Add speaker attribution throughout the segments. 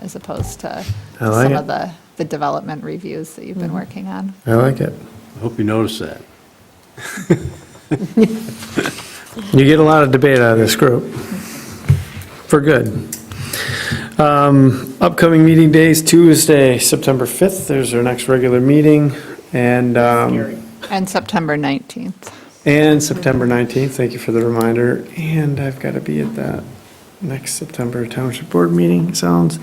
Speaker 1: as opposed to
Speaker 2: I like
Speaker 1: some
Speaker 2: it. Mm-hmm.
Speaker 1: of the, the development reviews that you've been working on.
Speaker 2: I like it.
Speaker 3: I hope you noticed that.
Speaker 2: You get a lot of debate out of this group, for good. Um, Upcoming meeting days, Tuesday, September 5th, there's our next regular meeting, and, um,
Speaker 1: And September 19th.
Speaker 2: and September 19th, thank you for the reminder, and I've got to be at that next September Township Board meeting, sounds.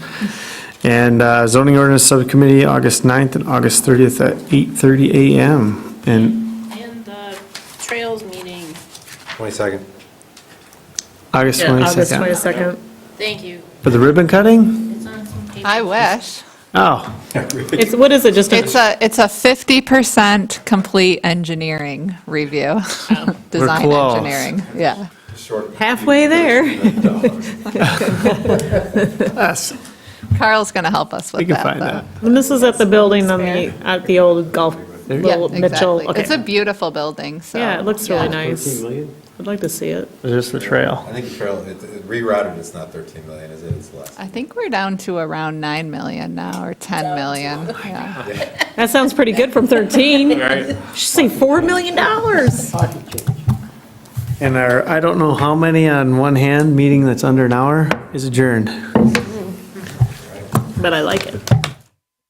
Speaker 2: And uh, zoning ordinance subcommittee, August 9th and August 30th at 8:30 a.m. And
Speaker 4: And the trails meeting,
Speaker 5: 22nd.
Speaker 2: August
Speaker 6: Yeah, August
Speaker 2: 22nd.
Speaker 6: 22nd.
Speaker 4: thank you.
Speaker 2: For the ribbon cutting?
Speaker 4: It's on some paper.
Speaker 1: I wish.
Speaker 2: Oh.
Speaker 6: It's, what is it, just
Speaker 1: It's
Speaker 6: a,
Speaker 1: a, it's a 50% complete engineering review. Design
Speaker 2: close.
Speaker 1: engineering, yeah.
Speaker 6: halfway there?
Speaker 2: Yes,
Speaker 1: Carl's going to help us
Speaker 2: we
Speaker 1: with
Speaker 2: can
Speaker 1: that,
Speaker 2: find
Speaker 1: though.
Speaker 2: that.
Speaker 6: And this is at the building on the, at the old golf,
Speaker 2: There-
Speaker 1: Yeah,
Speaker 6: little Mitchell,
Speaker 1: exactly. It's a
Speaker 6: okay.
Speaker 1: beautiful building, so.
Speaker 6: Yeah, it looks really
Speaker 1: yeah.
Speaker 6: nice. I'd like to see it.
Speaker 2: There's the trail.
Speaker 5: I think the trail, it it rerouted, it's not 13 million, is it? It's less.
Speaker 1: I think we're down to around 9 million now, or 10 million. yeah.
Speaker 6: That sounds pretty good from 13. Should say $4 million.
Speaker 2: And our, I don't know how many on one hand, meeting that's under an hour is adjourned.
Speaker 6: But I like it.